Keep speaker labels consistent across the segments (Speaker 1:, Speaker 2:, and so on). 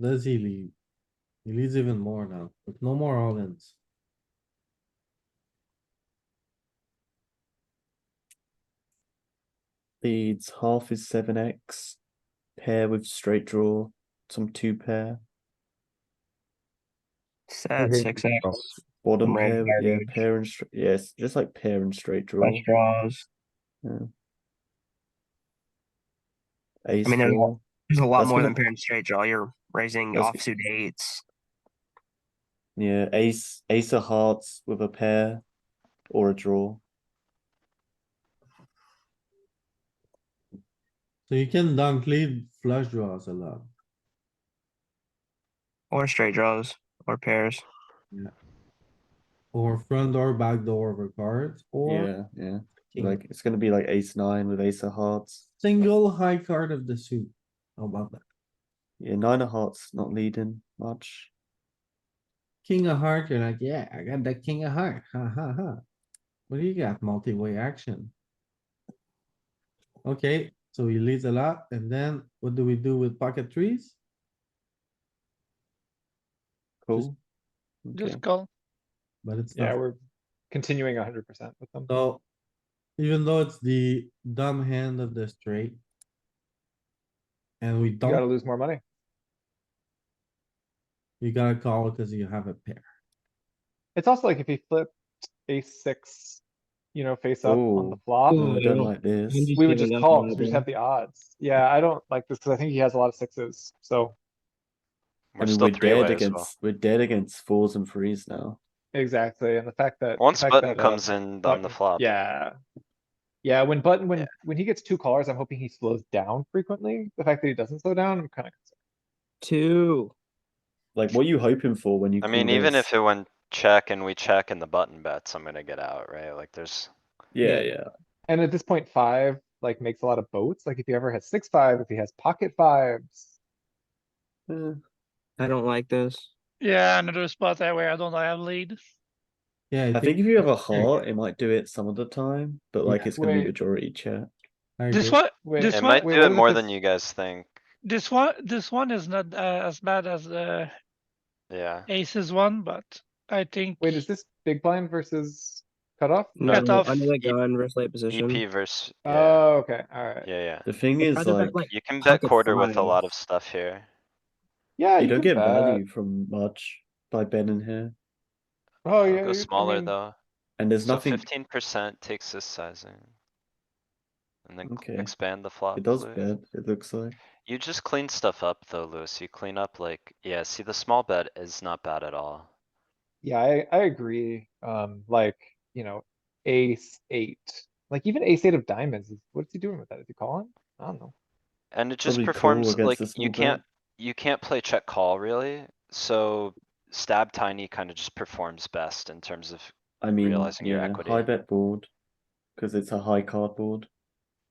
Speaker 1: Does he lead? He leads even more now, with no more all-ins.
Speaker 2: Leads half is 7x, pair with straight draw, some two pair,
Speaker 3: Set
Speaker 2: Mm-hmm.
Speaker 4: Okay.
Speaker 3: six X,
Speaker 2: bottom
Speaker 3: Right,
Speaker 2: pair,
Speaker 3: pair
Speaker 2: yeah,
Speaker 3: with-
Speaker 2: pair and straight, yeah, it's just like pair and straight draw.
Speaker 3: flush draws.
Speaker 2: Ace
Speaker 3: I mean, there's a
Speaker 2: four.
Speaker 3: lot- There's a lot
Speaker 2: That's
Speaker 3: more
Speaker 2: gonna-
Speaker 3: than pair and straight draw. You're raising
Speaker 2: That's-
Speaker 3: offsuit eights.
Speaker 2: Yeah, ace ace of hearts with a pair or a draw.
Speaker 1: So you can dunk lead flush draws a lot.
Speaker 3: Or straight draws, or pairs.
Speaker 1: Or front door, back door over cards, or
Speaker 2: yeah, yeah.
Speaker 1: king.
Speaker 2: Like it's gonna be like ace nine with ace of hearts.
Speaker 1: single high card of the suit. How about that?
Speaker 2: Yeah, nine of hearts not leading much.
Speaker 1: King of heart, you're like, yeah, I got the king of heart, ha ha ha. What do you got? Multi-way action. Okay, so he leads a lot, and then what do we do with pocket trees?
Speaker 2: Cool.
Speaker 5: Just
Speaker 2: Okay.
Speaker 5: call.
Speaker 1: But it's
Speaker 4: Yeah,
Speaker 1: not,
Speaker 4: we're continuing hundred percent with them.
Speaker 1: so, even though it's the dumb hand of the straight. And we
Speaker 4: You gotta
Speaker 1: don't,
Speaker 4: lose more money.
Speaker 1: you gotta call because you have a pair.
Speaker 4: It's also like if he flipped ace six, you know, face up on the
Speaker 2: Ooh.
Speaker 4: flop,
Speaker 2: Oh, I don't like this.
Speaker 4: we would just call because we just have the odds. Yeah, I don't like this because I think he has a lot of sixes, so
Speaker 2: I
Speaker 6: We're
Speaker 2: mean,
Speaker 6: still
Speaker 2: we're
Speaker 6: three
Speaker 2: dead
Speaker 6: away as well.
Speaker 2: against we're dead against fours and threes now.
Speaker 4: exactly, and the fact that. the
Speaker 6: Once
Speaker 4: fact
Speaker 6: button
Speaker 4: that, uh,
Speaker 6: comes in on the
Speaker 4: Button-
Speaker 6: flop.
Speaker 4: Yeah. Yeah, when button,
Speaker 6: Yeah.
Speaker 4: when, when he gets two callers, I'm hoping he slows down frequently. The fact that he doesn't slow down, I'm kinda concerned.
Speaker 7: Two.
Speaker 2: Like what are you hoping for when you
Speaker 6: I mean,
Speaker 2: call
Speaker 6: even
Speaker 2: this?
Speaker 6: if it went check and we check and the button bets, I'm gonna get out, right? Like there's,
Speaker 2: Yeah, yeah.
Speaker 4: And at this point, five, like, makes a lot of boats. Like, if he ever has six, five, if he has pocket fives.
Speaker 2: Eh,
Speaker 7: I don't like this.
Speaker 5: Yeah, another spot that way I don't have lead.
Speaker 1: Yeah,
Speaker 2: I think if you have a heart, it might do it some of the time, but like
Speaker 4: Yeah.
Speaker 2: it's gonna be
Speaker 4: Wait.
Speaker 2: majority check.
Speaker 1: I
Speaker 5: This
Speaker 1: agree.
Speaker 5: one,
Speaker 4: Wait,
Speaker 5: This
Speaker 6: it
Speaker 5: one-
Speaker 6: might
Speaker 4: wait,
Speaker 6: do
Speaker 4: what
Speaker 6: it
Speaker 4: if
Speaker 6: more
Speaker 4: it's-
Speaker 6: than you guys think,
Speaker 5: this one, this one is not uh, as bad as the
Speaker 6: yeah.
Speaker 5: aces one, but I think.
Speaker 4: Wait, is this big blind versus cutoff?
Speaker 7: No,
Speaker 5: Cut off
Speaker 7: under the
Speaker 6: E-
Speaker 7: gun versus late position.
Speaker 6: EP versus, yeah,
Speaker 4: Oh, okay, alright.
Speaker 6: yeah, yeah.
Speaker 2: The thing is
Speaker 7: Rather
Speaker 2: like
Speaker 7: bet, like
Speaker 6: You can bet
Speaker 7: pocket
Speaker 6: quarter with a lot of
Speaker 7: fives.
Speaker 6: stuff here.
Speaker 4: Yeah,
Speaker 2: you don't get
Speaker 4: can bet.
Speaker 2: value from much by betting here.
Speaker 4: Oh,
Speaker 6: I'll
Speaker 4: yeah. you-
Speaker 6: Go
Speaker 4: I
Speaker 6: smaller
Speaker 4: mean,
Speaker 6: though.
Speaker 2: And there's
Speaker 6: So
Speaker 2: nothing
Speaker 6: fifteen percent takes this sizing. And then cl-
Speaker 2: Okay.
Speaker 6: expand the flop.
Speaker 2: It does
Speaker 6: Louis.
Speaker 2: bet, it looks like.
Speaker 6: You just clean stuff up though, Louis. You clean up like, yeah, see the small bet is not bad at all.
Speaker 4: Yeah, I, I agree. Um, like, you know, ace eight, like even ace eight of diamonds, is- what's he doing with that? Is he calling? I don't know.
Speaker 6: And it just
Speaker 2: Probably cool
Speaker 6: performs
Speaker 2: against
Speaker 6: like,
Speaker 2: the small
Speaker 6: you
Speaker 2: bet.
Speaker 6: can't, you can't play check call really, so stab tiny kinda just performs best in terms of,
Speaker 2: I mean,
Speaker 6: Realizing your
Speaker 2: yeah,
Speaker 6: equity.
Speaker 2: high bet board. Cause it's a high card board.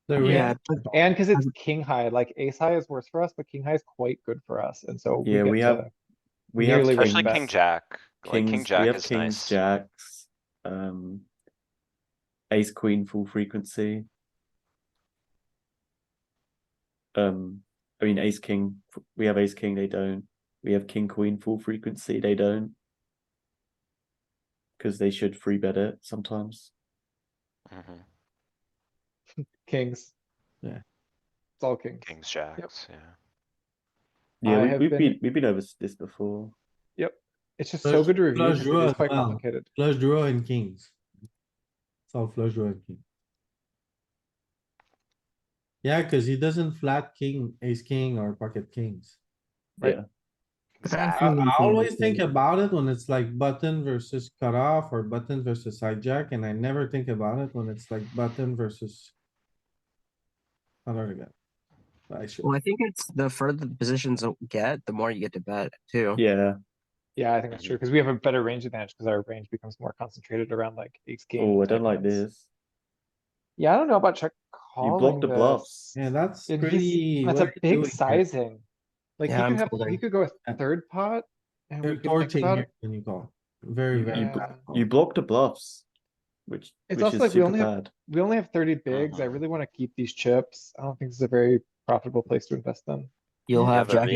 Speaker 1: The
Speaker 7: Yeah,
Speaker 1: red-
Speaker 2: Oh.
Speaker 7: but
Speaker 4: And cuz it's king high, like ace high is worse for us, but king high is quite good for us, and so.
Speaker 2: Yeah,
Speaker 4: get
Speaker 2: we have-
Speaker 4: to-
Speaker 2: We have
Speaker 4: Nearly
Speaker 6: especially
Speaker 4: ring
Speaker 6: king
Speaker 4: best.
Speaker 6: jack. Like king
Speaker 2: kings, we
Speaker 6: jack
Speaker 2: have
Speaker 6: is
Speaker 2: kings,
Speaker 6: nice.
Speaker 2: jacks, um. Ace, queen, full frequency. Um, I mean, ace, king, f- we have ace, king, they don't. We have king, queen, full frequency, they don't. Cause they should free bet it sometimes.
Speaker 6: Mhm.
Speaker 4: Kings.
Speaker 1: Yeah.
Speaker 4: It's all kings.
Speaker 6: Kings, jacks, yeah.
Speaker 4: I
Speaker 2: Yeah,
Speaker 4: have
Speaker 2: we, we've
Speaker 4: been-
Speaker 2: been, we've been over s- this before.
Speaker 4: It's just so
Speaker 1: Flush-
Speaker 4: good to review.
Speaker 1: flush
Speaker 4: because
Speaker 1: draw
Speaker 4: It is
Speaker 1: as
Speaker 4: quite
Speaker 1: well.
Speaker 4: complicated.
Speaker 1: Flush draw and kings. It's all flush draw and king. Yeah, cuz he doesn't flat king, ace king or pocket kings.
Speaker 4: Right.
Speaker 2: Yeah,
Speaker 1: I,
Speaker 7: Exactly.
Speaker 1: I always think about it when it's like button versus cutoff or button versus hijack, and I never think about it when it's like button versus. Other than that. I should,
Speaker 7: Well, I think it's the further the positions get, the more you get to bet too.
Speaker 2: yeah,
Speaker 4: Yeah, I think that's
Speaker 2: Um,
Speaker 4: true, because we have a better range advantage, because our range becomes more concentrated around like ace king.
Speaker 2: oh, I
Speaker 4: type
Speaker 2: don't like
Speaker 4: hands.
Speaker 2: this.
Speaker 4: Yeah, I don't know about check calling.
Speaker 2: You blocked the
Speaker 4: this.
Speaker 2: bluffs.
Speaker 1: yeah, that's
Speaker 4: And he's-
Speaker 1: pretty.
Speaker 4: That's
Speaker 1: what
Speaker 4: a
Speaker 1: are you doing
Speaker 4: big
Speaker 1: here?
Speaker 4: sizing. Like, he
Speaker 7: Yeah, I'm
Speaker 4: could have, he
Speaker 7: folding.
Speaker 4: could go a
Speaker 1: Yeah.
Speaker 4: third pot. and we
Speaker 1: You're
Speaker 4: could think
Speaker 1: torching
Speaker 4: about
Speaker 1: here
Speaker 4: it.
Speaker 1: when you call, very,
Speaker 2: You-
Speaker 1: very.
Speaker 2: bl-
Speaker 4: Yeah.
Speaker 2: You blocked the bluffs, which,
Speaker 4: It's
Speaker 2: which
Speaker 4: also
Speaker 2: is
Speaker 4: like we
Speaker 2: super
Speaker 4: only have-
Speaker 2: bad.
Speaker 4: We only have thirty bigs. I
Speaker 2: Uh-huh.
Speaker 6: Mhm.
Speaker 4: really wanna keep these chips. I don't think this is a very profitable place to invest them.
Speaker 7: You'll
Speaker 6: Yeah,
Speaker 7: have
Speaker 6: but
Speaker 7: jack